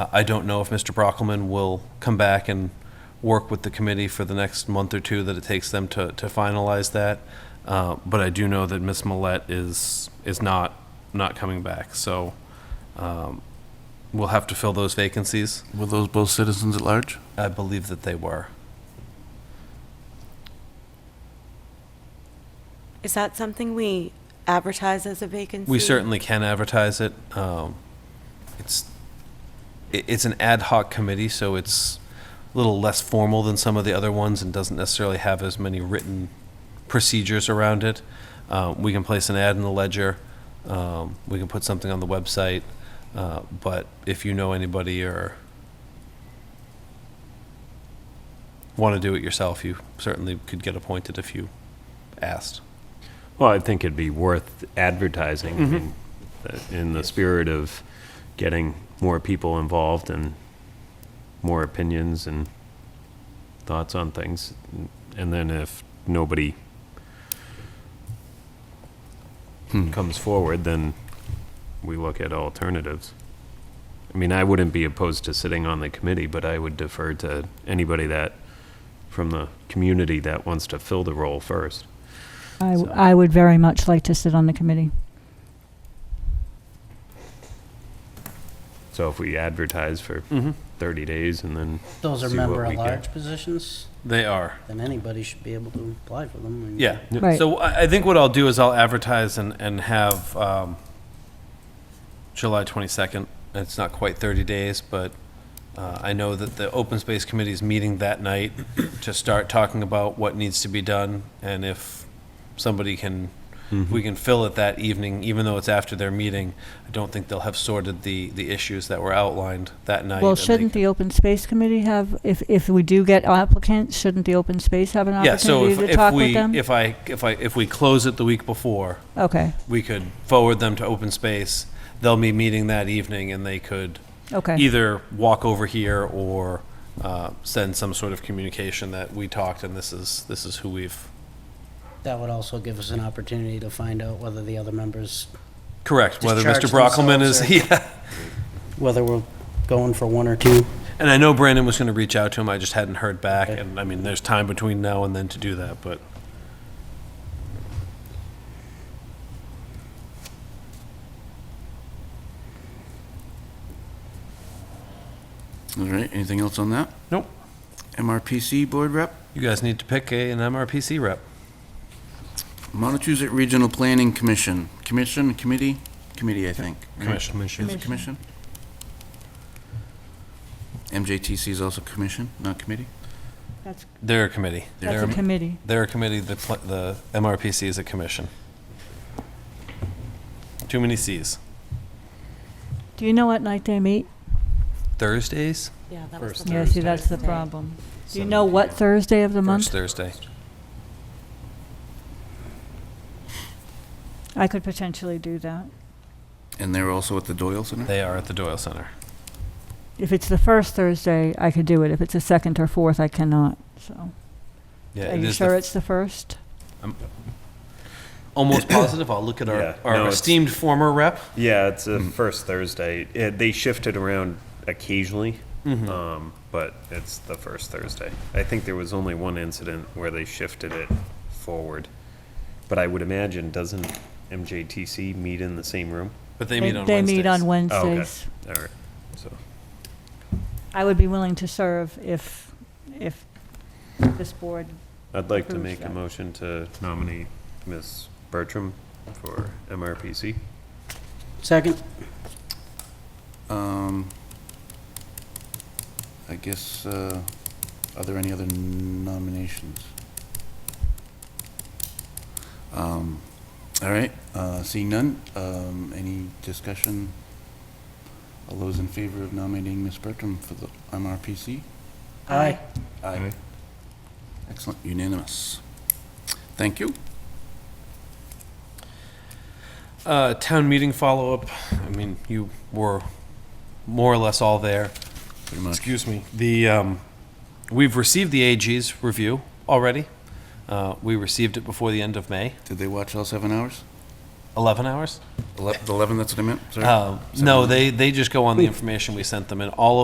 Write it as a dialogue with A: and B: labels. A: I don't know if Mr. Brockelman will come back and work with the committee for the next month or two that it takes them to, to finalize that. Uh, But I do know that Ms. Millet is, is not, not coming back, so um, we'll have to fill those vacancies.
B: Were those both citizens at large?
A: I believe that they were.
C: Is that something we advertise as a vacancy?
A: We certainly can advertise it. Um, It's, i- it's an ad hoc committee, so it's a little less formal than some of the other ones and doesn't necessarily have as many written procedures around it. Uh, We can place an ad in the ledger, um, we can put something on the website, uh, but if you know anybody or want to do it yourself, you certainly could get appointed if you asked.
D: Well, I think it'd be worth advertising I mean, uh, in the spirit of getting more people involved and more opinions and thoughts on things. And then if nobody comes forward, then we look at alternatives. I mean, I wouldn't be opposed to sitting on the committee, but I would defer to anybody that, from the community that wants to fill the role first.
E: I,
D: So-
E: I would very much like to sit on the committee.
D: So if we advertise for 30 days and then,
F: Those are
D: See what
F: member
D: we
F: at
D: get.
F: large positions,
A: They are.
F: then anybody should be able to apply for them. I mean,
A: Yeah.
D: Yep.
E: Right.
A: So I, I think what I'll do is I'll advertise and, and have, um, July twenty-second. It's not quite thirty days, but, uh, I know that the Open Space Committee is meeting that night to start talking about what needs to be done and if somebody can, if we can fill it that evening, even though it's after their meeting. I don't think they'll have sorted the, the issues that were outlined that night.
E: Well,
A: and they
E: shouldn't
A: can-
E: the Open Space Committee have, if, if we do get applicants, shouldn't the Open Space have an
A: Yeah, so
E: opportunity
A: if,
E: to
A: if
E: talk with
A: we,
E: them?
A: if I, if I, if we close it the week before,
E: Okay,
A: we could forward them to open space. They'll be meeting that evening and they could
E: okay,
A: either walk over here or uh, send some sort of communication that we talked and this is, this is who we've.
F: That would also give us an opportunity to find out whether the other members,
A: Correct, whether Mr.
F: Discharge
A: Brockelman
F: themselves
A: is,
F: or-
A: yeah.
F: whether we're going for one or two.
A: And I know Brandon was going to reach out to him, I just hadn't heard back.
F: Okay.
A: And I mean, there's time between now and then to do that, but
B: All right, anything else on that?
A: Nope.
B: MRPC Board Rep,
A: you guys need to pick a, an MRPC rep.
B: Montezut Regional Planning Commission, Commission, Committee, Committee, I think. right?
A: Commission.
B: Is it Commission? MJTC is also Commission, not Committee?
E: that's,
A: They're a committee.
E: that's
A: They're,
E: a committee.
A: they're a committee, the, pl- the MRPC is a commission. Too many Cs.
E: Do you know what night they meet?
A: Thursdays?
C: Yeah, that was
A: First
C: the
E: Yeah,
C: first
E: see, that's the
C: Thursday.
E: problem. Do you know what Thursday of the
A: First
E: month?
A: Thursday.
E: I could potentially do that.
B: And they're also at the Doyle Center?
A: They are at the Doyle Center.
E: If it's the first Thursday, I could do it. If it's the second or fourth, I cannot, so.
A: Yeah,
E: Are
A: it
E: you
A: is
E: sure
A: the-
E: it's the first?
A: almost positive. I'll look at
D: Yeah,
A: our, our
D: no, it's-
A: esteemed former representative
D: yeah, it's a first Thursday. Uh, they shifted around occasionally,
A: Mm-hmm. Uh,
D: um, but it's the first Thursday. I think there was only one incident where they shifted it forward. But I would imagine, doesn't MJTC meet in the same room?
A: but they meet on
E: They
A: Wednesdays.
E: meet on
D: Oh, okay.
E: Wednesdays.
D: All right, so.
E: I would be willing to serve if, if this board,
D: I'd like to
E: Approve
D: make a
E: that.
D: motion to nominate Ms. Bertram for MRPC.
F: Second,
B: Um, I guess, uh, are there any other nominations? Um, All right, uh, seeing none, um, any discussion? All those in favor of nominating Ms. Bertram for the MRPC?
F: aye.
B: Aye. Excellent, unanimous. Thank you.
A: Uh, town meeting follow up. I mean, you were more or less all there.
B: Pretty much.
A: Excuse me. The um, we've received the AG's review already. Uh, we received it before the end of May.
B: Did they watch all seven hours?
A: 11 hours?
B: Ele- The 11, that's what I meant, sorry.
A: Um,
B: Seven
A: No,
B: hours.
A: they, they just go on the information we sent them, and all of